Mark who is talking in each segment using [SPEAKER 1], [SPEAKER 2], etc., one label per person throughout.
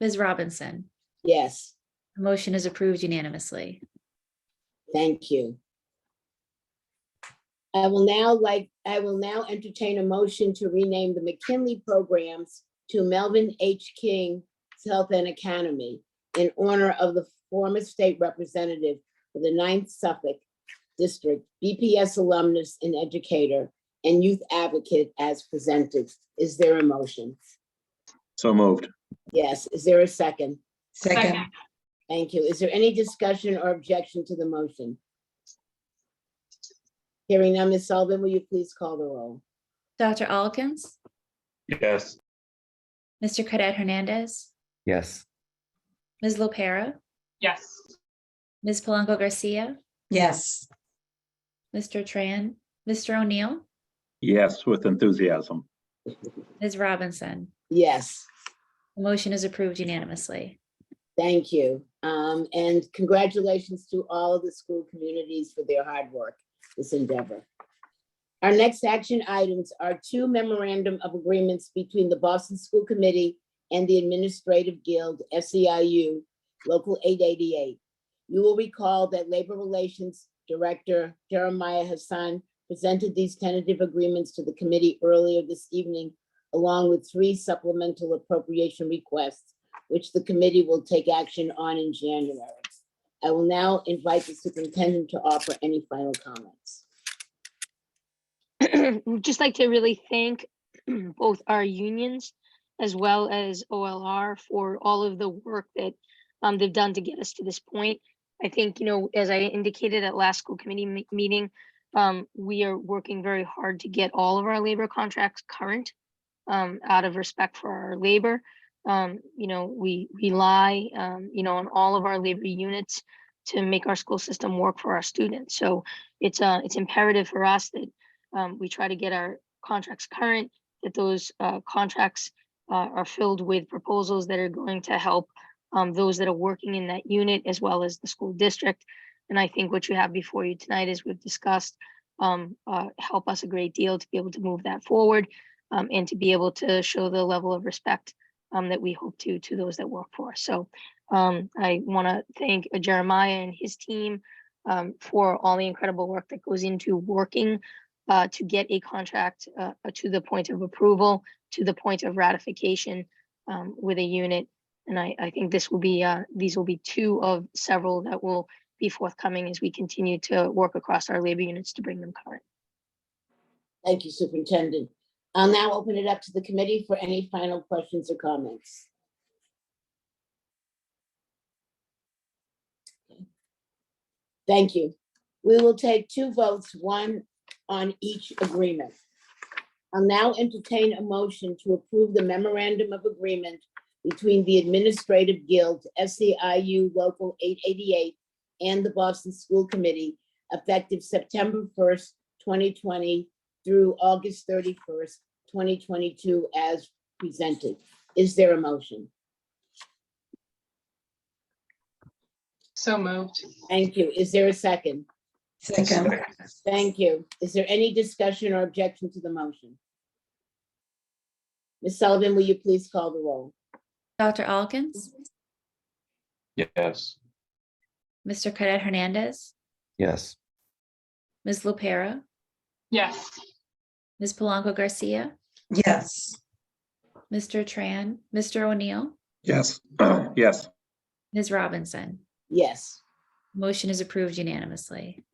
[SPEAKER 1] Ms. Robinson,
[SPEAKER 2] Yes,
[SPEAKER 1] the motion is approved unanimously.
[SPEAKER 2] thank you. I will now like, I will now entertain a motion to rename the McKinley programs to Melvin H. King Health and Academy in honor of the former state representative for the Ninth Suffolk District, BPS alumnus and educator, and youth advocate as presented. Is there a motion?
[SPEAKER 3] So moved.
[SPEAKER 2] Yes, is there a second?
[SPEAKER 4] Second,
[SPEAKER 2] Thank you. Is there any discussion or objection to the motion? Hearing none, Ms. Sullivan, will you please call the roll?
[SPEAKER 1] Dr. Alkins,
[SPEAKER 3] Yes.
[SPEAKER 1] Mr. Cadet Hernandez,
[SPEAKER 5] Yes.
[SPEAKER 1] Ms. Lopera,
[SPEAKER 4] yes.
[SPEAKER 1] Ms. Polanco Garcia,
[SPEAKER 4] Yes.
[SPEAKER 1] Mr. Tran, Mr. O'Neill,
[SPEAKER 3] Yes, with enthusiasm.
[SPEAKER 1] Ms. Robinson,
[SPEAKER 2] Yes,
[SPEAKER 1] the motion is approved unanimously.
[SPEAKER 2] thank you. Um, and congratulations to all of the school communities for their hard work, this endeavor. Our next action items are two memorandum of agreements between the Boston School Committee and the Administrative Guild, SEIU, Local 888. You will recall that Labor Relations Director Jeremiah Hassan presented these tentative agreements to the committee earlier this evening, along with three supplemental appropriation requests, which the committee will take action on in January. I will now invite the superintendent to offer any final comments.
[SPEAKER 6] We'd just like to really thank both our unions as well as OLR for all of the work that um, they've done to get us to this point. I think, you know, as I indicated at last school committee me- meeting, um, we are working very hard to get all of our labor contracts current um, out of respect for our labor. Um, you know, we rely, um, you know, on all of our labor units to make our school system work for our students. So it's uh, it's imperative for us that um, we try to get our contracts current, that those uh, contracts uh, are filled with proposals that are going to help um, those that are working in that unit as well as the school district. And I think what you have before you tonight, as we've discussed, um, uh, help us a great deal to be able to move that forward um, and to be able to show the level of respect um, that we hope to to those that work for us. So um, I want to thank Jeremiah and his team um, for all the incredible work that goes into working uh, to get a contract uh, uh, to the point of approval, to the point of ratification um, with a unit. And I, I think this will be, uh, these will be two of several that will be forthcoming as we continue to work across our labor units to bring them current.
[SPEAKER 2] Thank you, Superintendent. I'll now open it up to the committee for any final questions or comments. Thank you. We will take two votes, one on each agreement. I'll now entertain a motion to approve the memorandum of agreement between the Administrative Guild, SEIU Local 888, and the Boston School Committee effective September 1st, 2020 through August thirty-first, twenty twenty-two as presented. Is there a motion?
[SPEAKER 4] So moved.
[SPEAKER 2] Thank you. Is there a second?
[SPEAKER 4] Second,
[SPEAKER 2] Thank you. Is there any discussion or objection to the motion? Ms. Sullivan, will you please call the roll?
[SPEAKER 1] Dr. Alkins,
[SPEAKER 3] Yes.
[SPEAKER 1] Mr. Cadet Hernandez,
[SPEAKER 5] Yes.
[SPEAKER 1] Ms. Lopera,
[SPEAKER 4] yes.
[SPEAKER 1] Ms. Polanco Garcia,
[SPEAKER 4] Yes.
[SPEAKER 1] Mr. Tran, Mr. O'Neill,
[SPEAKER 3] Yes, yes,
[SPEAKER 1] Ms. Robinson,
[SPEAKER 2] Yes,
[SPEAKER 1] motion is approved unanimously.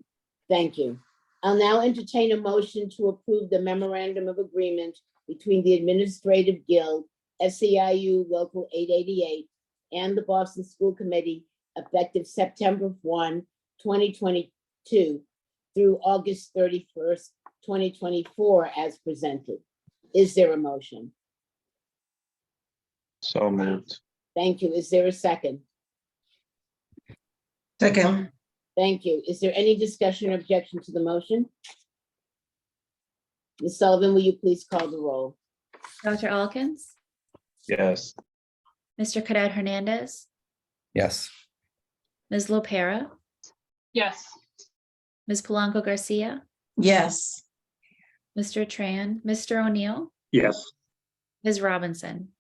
[SPEAKER 2] thank you. I'll now entertain a motion to approve the memorandum of agreement between the Administrative Guild, SEIU Local 888, and the Boston School Committee effective September 1, 2022 through August 31st, 2024 as presented. Is there a motion?
[SPEAKER 3] so moved.
[SPEAKER 2] Thank you. Is there a second?
[SPEAKER 4] Second,
[SPEAKER 2] Thank you. Is there any discussion or objection to the motion? Ms. Sullivan, will you please call the roll?
[SPEAKER 1] Dr. Alkins,
[SPEAKER 3] Yes.
[SPEAKER 1] Mr. Cadet Hernandez,
[SPEAKER 5] Yes.
[SPEAKER 1] Ms. Lopera,
[SPEAKER 4] yes.
[SPEAKER 1] Ms. Polanco Garcia,
[SPEAKER 4] Yes.
[SPEAKER 1] Mr. Tran, Mr. O'Neill,
[SPEAKER 3] Yes,
[SPEAKER 1] Ms. Robinson,